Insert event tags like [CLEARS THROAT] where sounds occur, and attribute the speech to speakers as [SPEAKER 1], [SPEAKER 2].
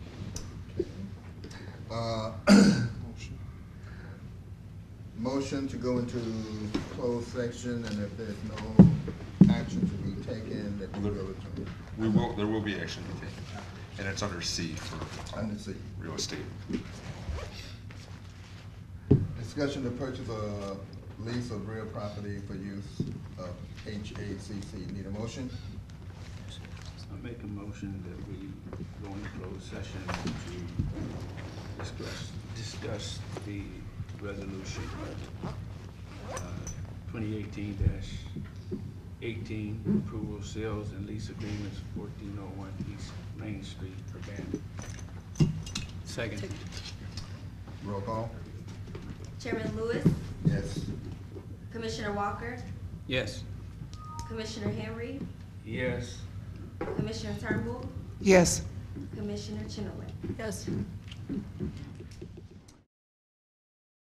[SPEAKER 1] Uh, [CLEARS THROAT] Motion to go into closed section, and if there's no action to be taken, that we go to
[SPEAKER 2] We will, there will be action to be taken, and it's under C for um,
[SPEAKER 1] Under C.
[SPEAKER 2] real estate.
[SPEAKER 1] Discussion to purchase a lease of real property for use of HACC. Need a motion?
[SPEAKER 3] I make a motion that we go into closed session to discuss, discuss the resolution uh, twenty eighteen eighteen, approval sales and lease agreements, fourteen oh one East Main Street, Urbana. Second.
[SPEAKER 1] Roll call?
[SPEAKER 4] Chairman Lewis,
[SPEAKER 1] Yes.
[SPEAKER 4] Commissioner Walker,
[SPEAKER 3] Yes.
[SPEAKER 4] Commissioner Henry,
[SPEAKER 3] Yes.
[SPEAKER 4] Commissioner Turnbull,
[SPEAKER 5] Yes.
[SPEAKER 4] Commissioner Chenoweth.
[SPEAKER 6] Yes.